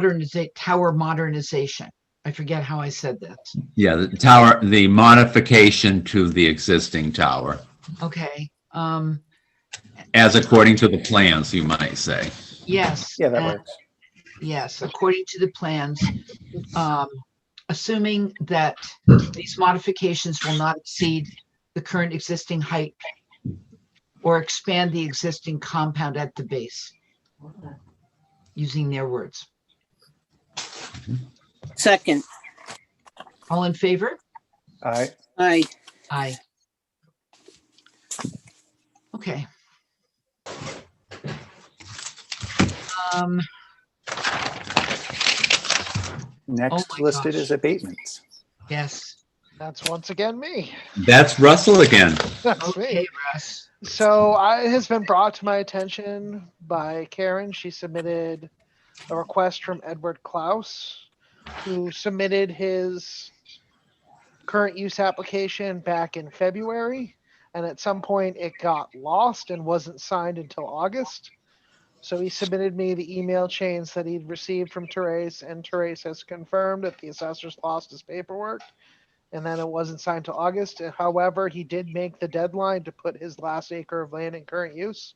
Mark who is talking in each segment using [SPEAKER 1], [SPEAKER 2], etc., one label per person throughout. [SPEAKER 1] moderniza- tower modernization. I forget how I said that.
[SPEAKER 2] Yeah, the tower, the modification to the existing tower,
[SPEAKER 1] Okay, um,
[SPEAKER 2] as according to the plans, you might say.
[SPEAKER 1] yes.
[SPEAKER 3] Yeah, that
[SPEAKER 1] and-
[SPEAKER 3] works.
[SPEAKER 1] Yes, according to the plans, um, assuming that these modifications will not exceed the current existing height or expand the existing compound at the base, using their words.
[SPEAKER 4] Second,
[SPEAKER 1] All in favor?
[SPEAKER 3] All right.
[SPEAKER 1] oh
[SPEAKER 4] aye.
[SPEAKER 1] Aye. Okay. Um,
[SPEAKER 3] Next
[SPEAKER 1] my
[SPEAKER 3] listed
[SPEAKER 1] gosh.
[SPEAKER 3] is abatements.
[SPEAKER 1] yes,
[SPEAKER 5] That's once again me.
[SPEAKER 2] That's Russell again.
[SPEAKER 5] That's me.
[SPEAKER 1] okay, Russ,
[SPEAKER 5] So I, it has been brought to my attention by Karen. She submitted a request from Edward Klaus, who submitted his current use application back in February. And at some point, it got lost and wasn't signed until August. So he submitted me the email chains that he'd received from Therese, and Therese has confirmed that the assessors lost his paperwork and then it wasn't signed till August. However, he did make the deadline to put his last acre of land in current use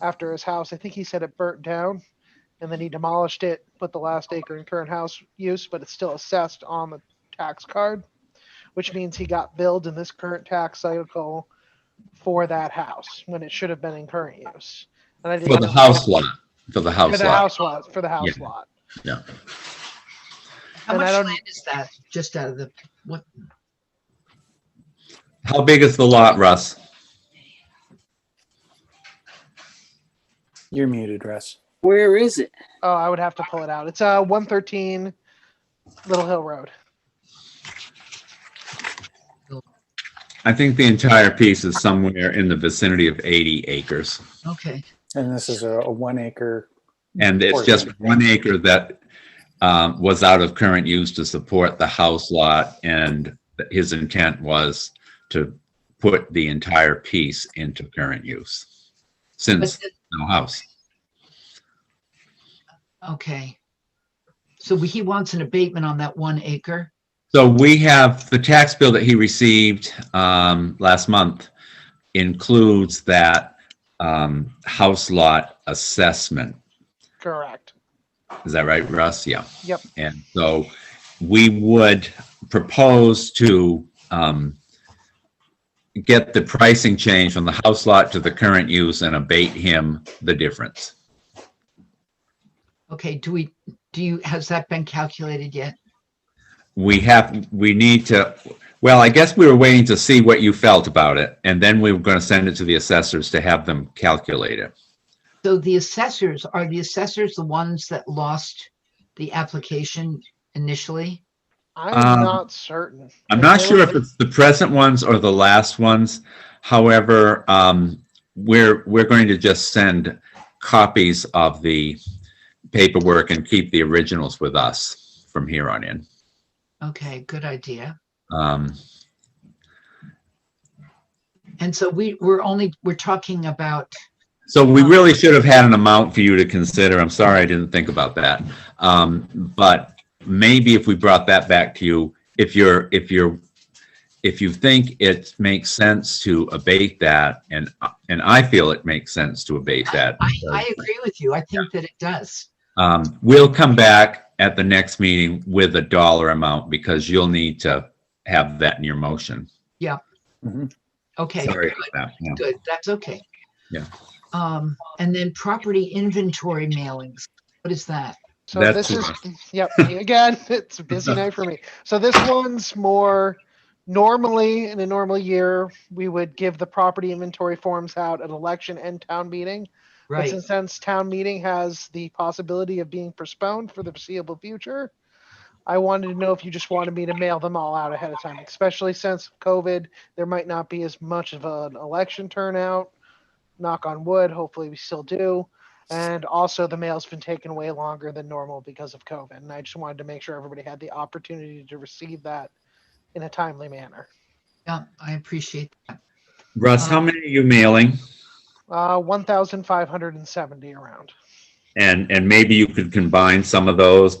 [SPEAKER 5] after his house. I think he said it burnt down, and then he demolished it, put the last acre in current house use, but it's still assessed on the tax card, which means he got billed in this current tax cycle for that house when it should have been in current use. And I did
[SPEAKER 2] For the
[SPEAKER 5] not-
[SPEAKER 2] house lot, for the
[SPEAKER 5] For
[SPEAKER 2] house
[SPEAKER 5] the
[SPEAKER 2] lot.
[SPEAKER 5] house lot, for the house lot.
[SPEAKER 1] how
[SPEAKER 5] And I
[SPEAKER 1] much
[SPEAKER 5] don't-
[SPEAKER 1] land is that, just out of the, what,
[SPEAKER 2] How big is the lot, Russ?
[SPEAKER 3] You're muted, Russ.
[SPEAKER 4] Where is it?
[SPEAKER 5] Oh, I would have to pull it out. It's uh 113 Little Hill Road.
[SPEAKER 2] I think the entire piece is somewhere in the vicinity of 80 acres.
[SPEAKER 1] okay.
[SPEAKER 3] And this is a, a one acre.
[SPEAKER 2] And it's just one acre that um, was out of current use to support the house lot. And his intent was to put the entire piece into current use
[SPEAKER 1] But
[SPEAKER 2] since
[SPEAKER 1] the-
[SPEAKER 2] no house.
[SPEAKER 1] Okay. So he wants an abatement on that one acre?
[SPEAKER 2] So we have, the tax bill that he received um, last month includes that um, house lot assessment.
[SPEAKER 5] Correct.
[SPEAKER 2] Is that right, Russ? Yeah.
[SPEAKER 5] Yep.
[SPEAKER 2] And so we would propose to um, get the pricing change from the house lot to the current use and abate him the difference.
[SPEAKER 1] Okay, do we, do you, has that been calculated yet?
[SPEAKER 2] We have, we need to, well, I guess we were waiting to see what you felt about it, and then we were going to send it to the assessors to have them calculate it.
[SPEAKER 1] So the assessors, are the assessors the ones that lost the application initially?
[SPEAKER 5] I'm
[SPEAKER 2] Um,
[SPEAKER 5] not certain.
[SPEAKER 2] I'm
[SPEAKER 5] I
[SPEAKER 2] not
[SPEAKER 5] know
[SPEAKER 2] sure if
[SPEAKER 5] that-
[SPEAKER 2] it's the present ones or the last ones. However, um, we're, we're going to just send copies of the paperwork and keep the originals with us from here on in.
[SPEAKER 1] Okay, good idea.
[SPEAKER 2] Um,
[SPEAKER 1] And so we, we're only, we're talking about,
[SPEAKER 2] so
[SPEAKER 1] Uh-huh.
[SPEAKER 2] we really should have had an amount for you to consider. I'm sorry I didn't think about that. Um, but maybe if we brought that back to you, if you're, if you're, if you think it makes sense to abate that, and, and I feel it makes sense to abate that.
[SPEAKER 1] I, I agree with you. I think that it does.
[SPEAKER 2] Um, we'll come back at the next meeting with a dollar amount because you'll need to have that in your motion.
[SPEAKER 1] Okay,
[SPEAKER 2] Sorry about that. yeah.
[SPEAKER 1] good, that's okay.
[SPEAKER 2] Yeah.
[SPEAKER 1] Um, and then property inventory mailings, what is that?
[SPEAKER 5] So
[SPEAKER 2] That's
[SPEAKER 5] this is yep. Again, it's a busy night for me. So this one's more normally in a normal year we would give the property inventory forms out at election and town meeting. But
[SPEAKER 1] Right,
[SPEAKER 5] since since town meeting has the possibility of being postponed for the foreseeable future, I wanted to know if you just wanted me to mail them all out ahead of time, especially since COVID, there might not be as much of an election turnout. Knock on wood, hopefully we still do. And also the mail's been taken way longer than normal because of COVID. And I just wanted to make sure everybody had the opportunity to receive that in a timely manner.
[SPEAKER 1] yeah, I appreciate that. Um,
[SPEAKER 2] Russ, how many are you mailing?
[SPEAKER 5] Uh, 1,570 around.
[SPEAKER 2] And, and maybe you could combine some of those